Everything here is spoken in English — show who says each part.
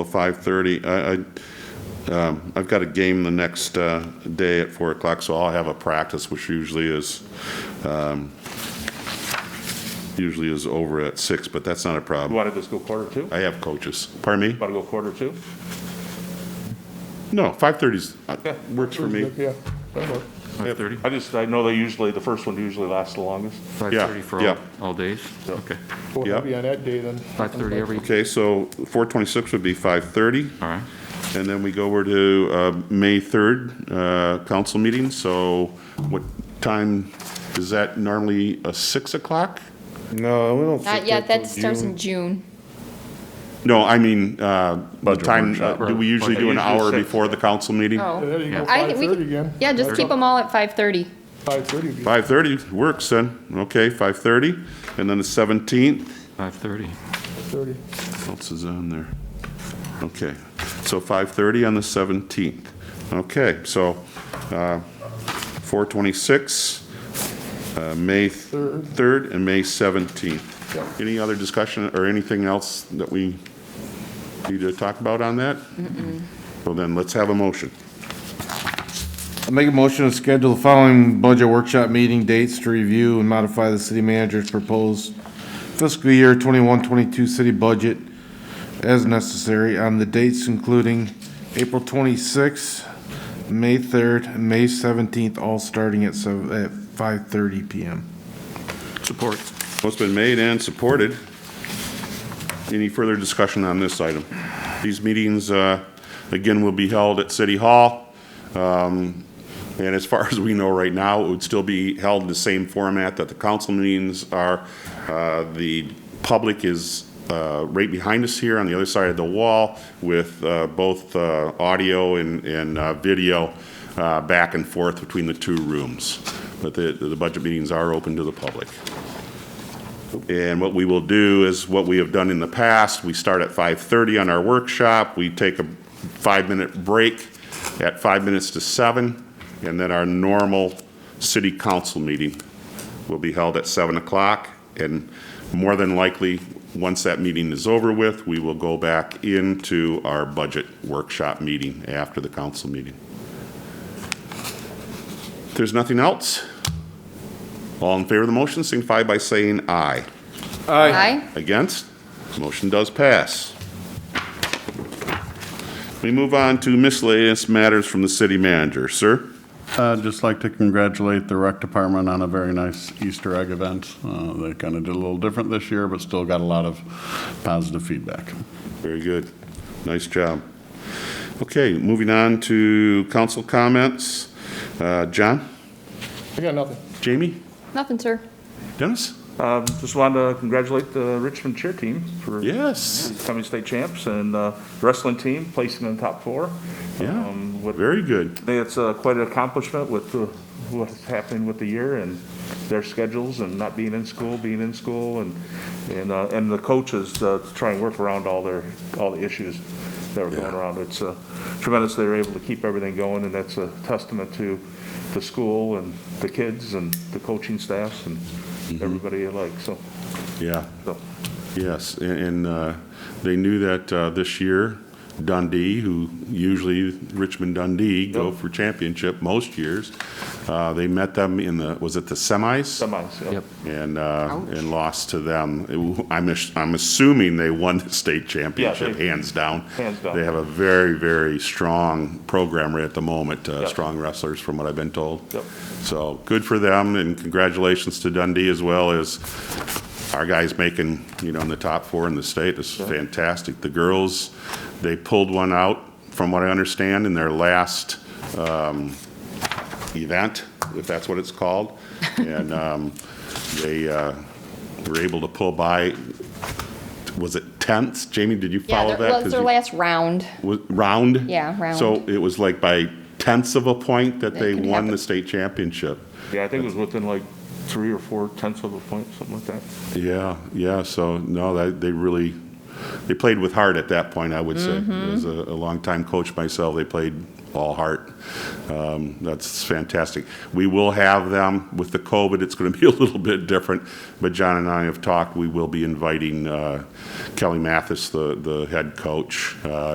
Speaker 1: of 5:30. I, I, um, I've got a game the next uh, day at 4 o'clock, so I'll have a practice, which usually is, um, usually is over at 6, but that's not a
Speaker 2: You
Speaker 1: problem.
Speaker 2: want to just go quarter two?
Speaker 1: I have coaches. Pardon me?
Speaker 2: Want to go quarter two?
Speaker 1: No, 5:30's, uh,
Speaker 2: Yeah.
Speaker 1: works for me.
Speaker 2: Yeah.
Speaker 3: Five thirty?
Speaker 2: I just, I know they usually, the first one usually lasts the longest.
Speaker 3: Five
Speaker 1: Yeah,
Speaker 3: thirty for all,
Speaker 1: yeah.
Speaker 3: all days? Okay.
Speaker 4: Well,
Speaker 1: Yep.
Speaker 4: it'll be on that day then.
Speaker 3: Five thirty every,
Speaker 1: Okay, so 4:26 would be 5:30.
Speaker 3: all right.
Speaker 1: And then we go over to uh, May 3rd, uh, council meeting, so what time, is that normally a 6 o'clock?
Speaker 5: No, we don't.
Speaker 6: Not
Speaker 5: think
Speaker 6: yet,
Speaker 5: that's
Speaker 6: Uh, that
Speaker 5: till
Speaker 6: starts
Speaker 5: June.
Speaker 6: in June.
Speaker 1: No, I mean, uh, the time, uh, do we usually do an hour
Speaker 2: Usually six.
Speaker 1: before the council meeting?
Speaker 4: And
Speaker 6: Oh.
Speaker 4: then you
Speaker 3: Yeah.
Speaker 4: go
Speaker 6: I think we
Speaker 4: 5:30
Speaker 6: could-
Speaker 4: again.
Speaker 6: Yeah, just keep them all at 5:30.
Speaker 4: 5:30 again.
Speaker 1: 5:30 works then, okay, 5:30, and then the 17th,
Speaker 3: Five thirty.
Speaker 4: 5:30.
Speaker 1: what else is on there? Okay, so 5:30 on the 17th, okay, so uh, 4:26, uh, May
Speaker 4: Third.
Speaker 1: 3rd and May 17th. Any other discussion or anything else that we need to talk about on that? Well then, let's have a motion.
Speaker 5: I Make a motion to schedule the following budget workshop meeting dates to review and modify the city manager's proposed fiscal year 21-22 city budget as necessary on the dates including April twenty-sixth, May third, and May seventeenth, all starting at seven, at five thirty PM.
Speaker 3: Support.
Speaker 1: Well, it's been made and supported. Any further discussion on this item? These meetings, uh, again, will be held at City Hall. Um, And as far as we know right now, it would still be held in the same format that the council meetings are. Uh, The public is uh, right behind us here on the other side of the wall with uh, both uh, audio and and, uh, video uh, back and forth between the two rooms. But the the budget meetings are open to the public. And what we will do is what we have done in the past, we start at 5:30 on our workshop, we take a five-minute break at five minutes to seven, and then our normal city council meeting will be held at 7 o'clock. And more than likely, once that meeting is over with, we will go back into our budget workshop meeting after the council meeting. If there's nothing else, all in favor of the motion, signify by saying aye.
Speaker 6: Aye.
Speaker 1: Against? Motion does pass. We move on to miscellaneous matters from the city manager. Sir?
Speaker 7: I'd just like to congratulate the rec department on a very nice Easter egg event. Uh, They kind of did a little different this year, but still got a lot of positive feedback.
Speaker 1: Very good. Nice job. Okay, moving on to council comments. Uh, John?
Speaker 4: I got nothing.
Speaker 1: Jamie?
Speaker 6: Nothing, sir.
Speaker 1: Dennis?
Speaker 2: Um, Just wanted to congratulate the Richmond cheer team for
Speaker 1: Yes,
Speaker 2: becoming state champs and uh, wrestling team placing in the top four.
Speaker 1: Yeah.
Speaker 2: Um, with-
Speaker 1: very good.
Speaker 2: I think it's uh, quite an accomplishment with the- what's happening with the year and their schedules and not being in school, being in school, and, and, uh, and the coaches uh, to try and work around all their, all the issues that were going
Speaker 1: Yeah.
Speaker 2: around. It's uh, tremendous they were able to keep everything going, and that's a testament to the school and the kids and the coaching staffs and everybody alike, so,
Speaker 1: Yeah,
Speaker 2: so.
Speaker 1: Yes, a- and uh, they knew that uh, this year Dundee, who usually Richmond Dundee go
Speaker 2: Yep.
Speaker 1: for championship most years, uh, they met them in the, was it the semis?
Speaker 2: Semis, yeah.
Speaker 3: Yep.
Speaker 1: And, uh, and lost to them. It- I'm, ass- I'm assuming they won the state championship,
Speaker 2: they-
Speaker 1: hands down.
Speaker 2: hands down.
Speaker 1: They have a very, very strong program right at the moment, uh,
Speaker 2: Yep.
Speaker 1: strong wrestlers from what I've been told.
Speaker 2: Yep.
Speaker 1: So good for them and congratulations to Dundee as well as our guys making, you know, in the top four in the state. This is fantastic. The girls, they pulled one out, from what I understand, in their last um, event, if that's what it's called. And um, they uh, were able to pull by, was it 10th? Jamie, did you
Speaker 6: Yeah,
Speaker 1: follow
Speaker 6: that
Speaker 1: that?
Speaker 6: was
Speaker 1: 'Cause
Speaker 6: their
Speaker 1: you-
Speaker 6: last round.
Speaker 1: was- Round?
Speaker 6: Yeah, round.
Speaker 1: So it was like by tenths of a point that
Speaker 6: That
Speaker 1: they
Speaker 6: can
Speaker 1: won
Speaker 6: happen.
Speaker 1: the state championship.
Speaker 2: Yeah, I think it was within like three or four tenths of a point, something like that.
Speaker 1: Yeah, yeah, so, no, that, they really, they played with heart at that point, I would say. As a, a longtime coach myself, they played all heart. Um, That's fantastic. We will have them, with the COVID, it's going to be a little bit different, but John and I have talked, we will be inviting uh, Kelly Mathis, the the head coach, uh,